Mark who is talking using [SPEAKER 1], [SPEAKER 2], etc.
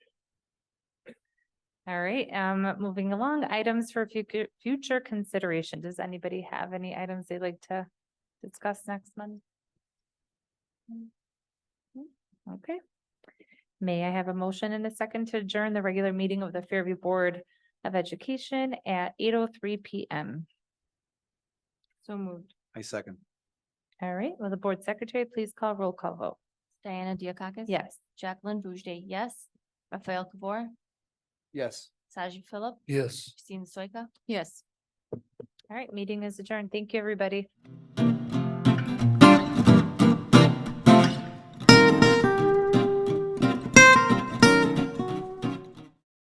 [SPEAKER 1] All right, um, moving along, items for future, future consideration. Does anybody have any items they'd like to discuss next month? Mm-hmm. Okay. May I have a motion and a second to adjourn the regular meeting of the Fairview Board of Education at eight oh three PM? So moved.
[SPEAKER 2] I second.
[SPEAKER 1] All right, will the board secretary please call roll call vote?
[SPEAKER 3] Diana Diakakis?
[SPEAKER 1] Yes.
[SPEAKER 3] Jacqueline Boujde, yes. Raphael Kabor?
[SPEAKER 2] Yes.
[SPEAKER 3] Sajid Philip?
[SPEAKER 2] Yes.
[SPEAKER 3] Christine Soika?
[SPEAKER 1] Yes. All right, meeting is adjourned. Thank you, everybody.